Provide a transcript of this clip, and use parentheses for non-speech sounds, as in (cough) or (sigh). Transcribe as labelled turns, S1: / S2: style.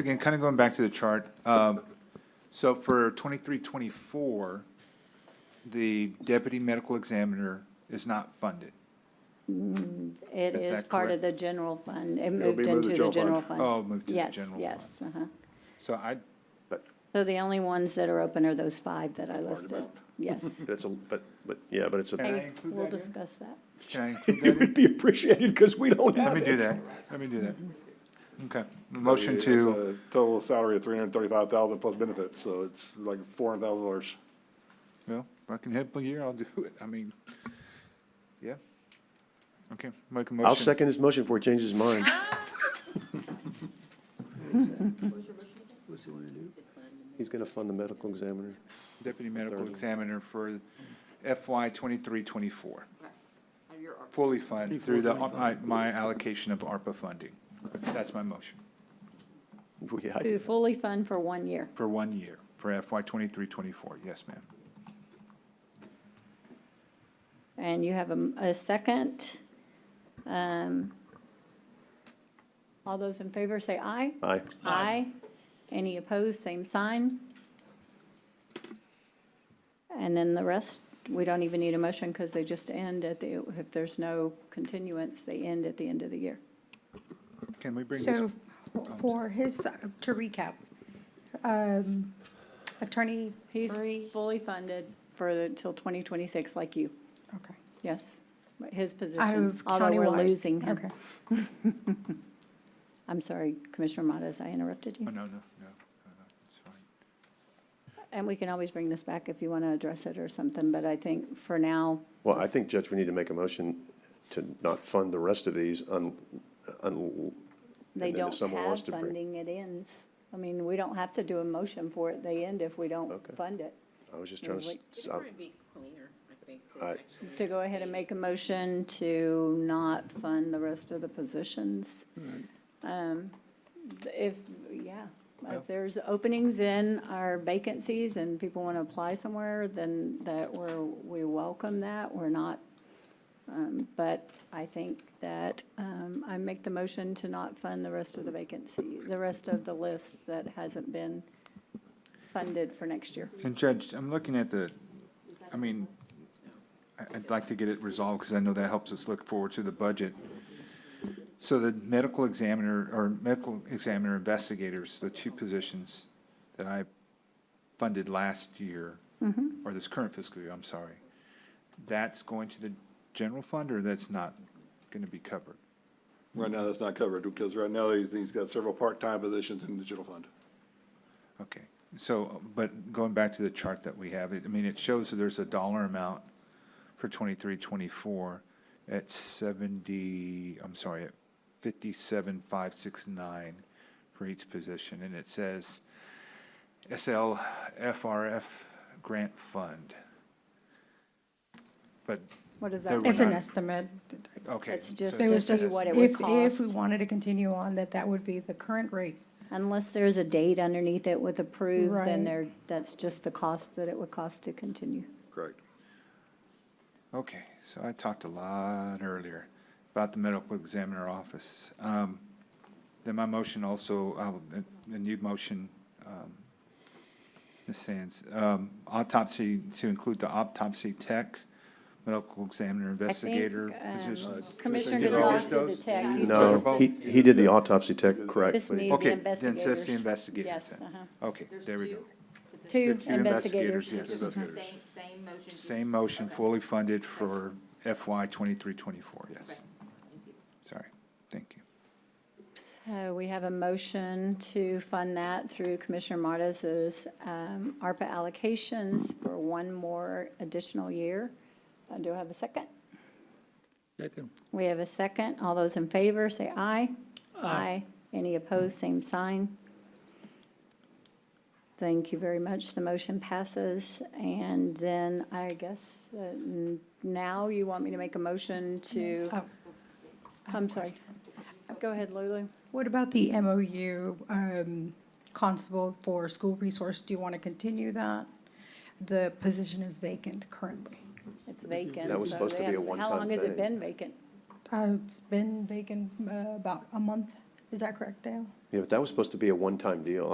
S1: Again, kind of going back to the chart, um, so for twenty-three, twenty-four, the deputy medical examiner is not funded.
S2: It
S1: Is
S2: is
S1: that
S2: part
S1: correct?
S2: of the general fund. It
S3: be
S2: moved
S3: moved to
S2: into the
S3: general
S2: general
S3: fund.
S2: fund.
S1: Oh, moved to the general
S2: Yes, yes, uh-huh.
S1: So I,
S3: But
S2: So the only ones that are open are those five that I listed. (laughs) Yes.
S3: that's a, but, but, yeah, but it's
S1: Can
S3: a,
S1: I
S2: And
S1: include
S2: we'll
S1: that in?
S2: discuss that.
S1: can I include that
S2: (laughs)
S3: (laughs) it
S1: in?
S3: would be appreciated because we don't
S1: Let
S3: have
S1: me do
S3: it.
S1: that, let me do that.
S2: Mm-hmm.
S1: Okay, motion to,
S4: It's a Total salary of three hundred and thirty-five thousand plus benefits, so it's like four hundred thousand dollars.
S1: well, if I can help a year, I'll do it, I mean, yeah. Okay, make a motion.
S3: I'll second his motion before he changes his mind. He's gonna fund the medical examiner.
S1: Deputy medical examiner for FY twenty-three, twenty-four,
S5: Your ARPA.
S1: fully funded through the, my- my allocation of ARPA funding. That's my motion.
S3: Yeah, I-
S2: To fully fund for one year.
S1: For one year, for FY twenty-three, twenty-four, yes, ma'am.
S2: And you have a, m- a second. Um, All those in favor say aye.
S3: Aye.
S2: Aye. Any opposed, same sign. And then the rest, we don't even need a motion because they just end at the, if there's no continuance, they end at the end of the year.
S1: Can we bring this,
S6: So for his, uh, to recap, um, attorney
S2: He's
S6: three,
S2: fully funded for, the- till 2026, like you,
S6: okay.
S2: yes, his
S6: Out
S2: position,
S6: of
S2: although we're
S6: countywide.
S2: losing him.
S6: Okay.
S2: I'm sorry, Commissioner Modas, I interrupted
S1: oh,
S2: you.
S1: no, no, no, no, no, it's fine.
S2: And we can always bring this back if you want to address it or something, but I think for now,
S3: Well, I think, Judge, we need to make a motion to not fund the rest of these un,
S2: they
S3: un. and then if
S2: don't
S3: someone wants
S2: have
S3: to bring-
S2: funding, it ends. I mean, we don't have to do a motion for it, they end if we don't
S3: Okay.
S2: fund it.
S3: I was just trying to,
S5: It's
S3: s- I-
S5: gonna be cleaner, I think, to
S3: I-
S5: actually.
S2: To go ahead and make a motion to not fund the rest of the positions.
S1: Hmm.
S2: Um, If, yeah,
S1: Yeah.
S2: if there's openings in our vacancies and people want to apply somewhere, then that we're, we welcome that, we're not. um, But I think that um, I make the motion to not fund the rest of the vacancy, the rest of the list that hasn't been funded for next year.
S1: And Judge, I'm looking at the, I mean, I- I'd like to get it resolved because I know that helps us look forward to the budget. So the medical examiner, or medical examiner investigators, the two positions that I funded last year, or this current fiscal year, I'm sorry, that's going to the general fund or that's not going to be covered?
S4: Right now, that's not covered, because right now, he's, he's got several part-time positions in the general fund.
S1: Okay, so, but going back to the chart that we have, it- I mean, it shows that there's a dollar amount for twenty-three, twenty-four at seventy, I'm sorry, at fifty-seven, five, six, nine for each position, and it says SLFRF grant fund. But,
S2: What is
S1: There
S2: that?
S1: we-
S2: mean?
S6: It's an
S1: not-
S6: estimate.
S1: okay.
S2: It's just-
S1: so
S2: There
S6: It was
S2: Just
S6: just,
S2: see what it would
S6: if, if we
S2: cost.
S6: wanted to continue on, that that would be the current rate.
S2: Unless there's a date underneath it with approved, then
S6: Right.
S2: there, that's just the cost that it would cost to continue.
S4: Correct.
S1: Okay, so I talked a lot earlier about the medical examiner office. Um, Then my motion also, I'll- a a new motion, um, Ms. Sands, um, autopsy, to include the autopsy tech, medical examiner
S2: I think,
S1: investigator
S2: um,
S1: position.
S2: Commissioner
S1: Did you
S2: Gonzalez
S1: miss
S2: did
S1: those?
S2: the tech. You
S1: Those are
S3: no,
S1: both-
S3: he, he did the autopsy tech
S2: Just need
S3: correctly.
S2: the
S1: Okay, then it's
S2: investigators.
S1: the investigators
S2: Yes,
S1: then.
S2: uh-huh.
S1: Okay, there we go.
S2: Two
S1: Two investigators,
S2: investigators.
S1: yes.
S5: Same, same motion. just-
S1: Same motion,
S5: Okay.
S1: fully funded for FY twenty-three, twenty-four, yes. Sorry, thank you.
S2: So Uh, we have a motion to fund that through Commissioner Martis's um, ARPA allocations for one more additional year. Uh, Do I have a second?
S7: Second.
S2: We have a second. All those in favor, say aye. Aye. Any opposed, same sign. Thank you very much. The motion passes. And then I guess uh, n- now you want me to make a motion to,
S6: Oh.
S2: I'm sorry. Go ahead, Lulu.
S6: What about the MOU um, constable for school resource? Do you want to continue that? The position is vacant currently.
S2: It's vacant.
S3: That was
S2: so
S3: supposed to
S2: they
S3: be a
S2: haven't- How
S3: one-time
S2: long has it
S3: thing.
S2: been vacant?
S6: Uh, It's been vacant uh, about a month. Is that correct, Dale?
S3: Yeah, but that was supposed to be a one-time deal.